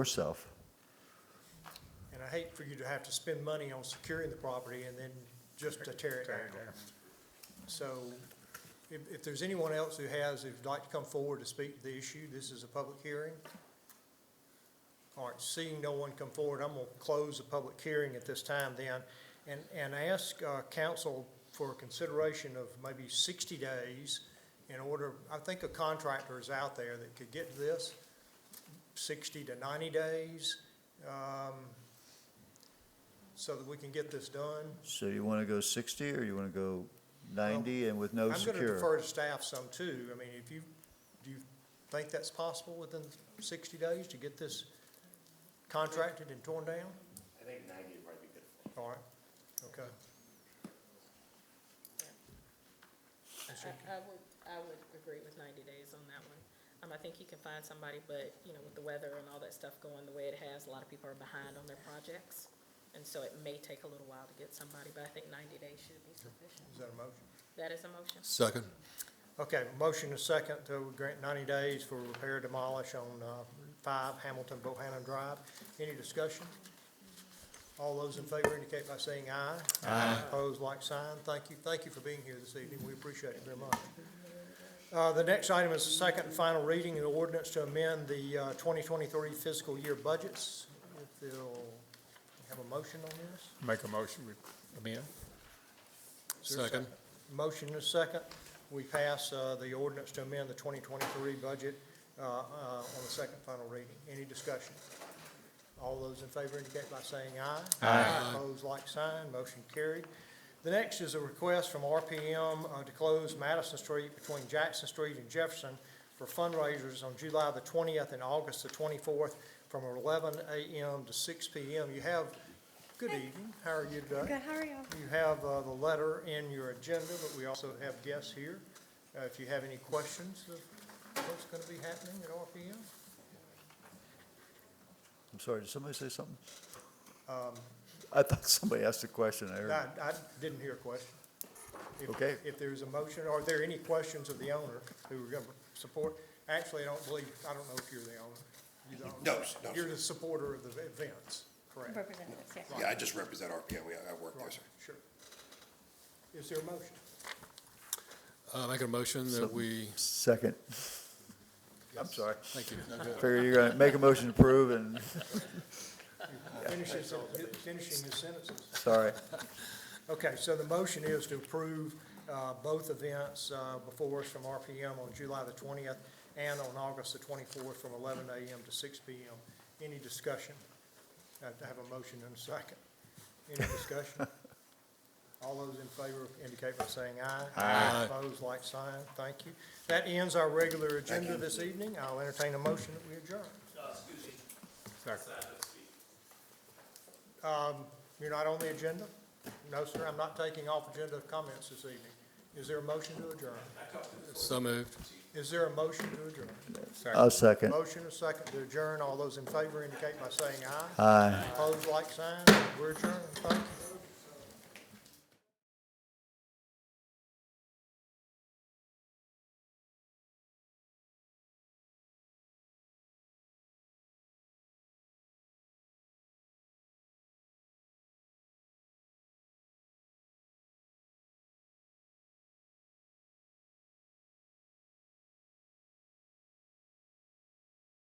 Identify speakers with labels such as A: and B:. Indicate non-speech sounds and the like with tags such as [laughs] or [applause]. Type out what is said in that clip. A: yourself.
B: And I hate for you to have to spend money on securing the property and then just to tear it down. So if, if there's anyone else who has, who'd like to come forward to speak to the issue, this is a public hearing. All right, seeing no one come forward, I'm gonna close the public hearing at this time then and, and ask, uh, council for consideration of maybe sixty days in order, I think a contractor is out there that could get this, sixty to ninety days, um, so that we can get this done.
A: So you want to go 60 or you want to go 90 and with no
B: I'm gonna
A: secure?
B: defer to staff some too. I mean, if you, do you think that's possible within sixty days to get this contracted and torn down?
C: I think ninety would probably be good.
B: All right, okay.
D: I, I would, I would agree with ninety days on that one. Um, I think you can find somebody, but, you know, with the weather and all that stuff going the way it has, a lot of people are behind on their projects. And so it may take a little while to get somebody, but I think ninety days should be sufficient.
B: Is that a motion?
D: That is a motion?
E: Second.
B: Okay, motion is second to grant ninety days for repair demolish on, uh, five Hamilton Bohannon Drive. Any discussion? All those in favor indicate by saying aye. Aye. Opposed, like sign. Thank you, thank you for being here this evening. We appreciate it very much. Uh, the next item is the second and final reading of the ordinance to amend the, uh, twenty twenty-three fiscal year budgets. If they'll have a motion on this?
E: Make a motion, we amend?
B: Is there a
E: Second.
B: Motion is second. We pass uh, the ordinance to amend the 2023 budget uh, uh, on the second final reading. Any discussion? All those in favor indicate by saying aye. Aye. Opposed, like sign. Motion carried. The next is a request from RPM uh, to close Madison Street between Jackson Street and Jefferson for fundraisers on July the 20th and August the 24th from 11 a.m. to 6 p.m. You have, good evening. How are you today?
F: Good, how are y'all?
B: You have uh, the letter in your agenda, but we also have guests here. Uh, If you have any questions of what's going to be happening at RPM?
A: I'm sorry, did somebody say something?
B: Um,
A: I thought somebody asked a question. I heard.
B: I, I didn't hear a question. If-
A: Okay.
B: If there's a motion, are there any questions of the owner who are going to support? Actually, I don't believe, I don't know if you're the owner. You don't.
C: No, s- no,
B: You're
C: sir.
B: the supporter of the events, correct?
F: Representatives, yeah.
C: Yeah, I just represent RPM, We- I work there,
B: Right,
C: sir.
B: Sure. Is there a motion?
E: Uh, make a motion that we,
A: Second. I'm sorry.
E: thank you. No, good.
A: Figure you're going to make a motion to approve and, [laughs]
B: Finishing, finishing his sentences.
A: sorry.
B: Okay, so the motion is to approve uh, both events uh, before us from RPM on July the 20th and on August the 24th from 11 a.m. to 6 p.m. Any discussion? I have to have a motion and a second. Any discussion? All those in favor indicate by saying aye.
E: Aye.
B: Opposed, like sign. Thank you. That ends our regular agenda this evening. I'll entertain a motion that we adjourn. Um, You're not on the agenda? No, sir, I'm not taking off agenda comments this evening. Is there a motion to adjourn?
E: So moved.
B: Is there a motion to adjourn?
A: I'll second.
B: Motion, a second to adjourn. All those in favor indicate by saying aye.
A: Aye.
B: Opposed, like sign. We're adjourned. Thank you.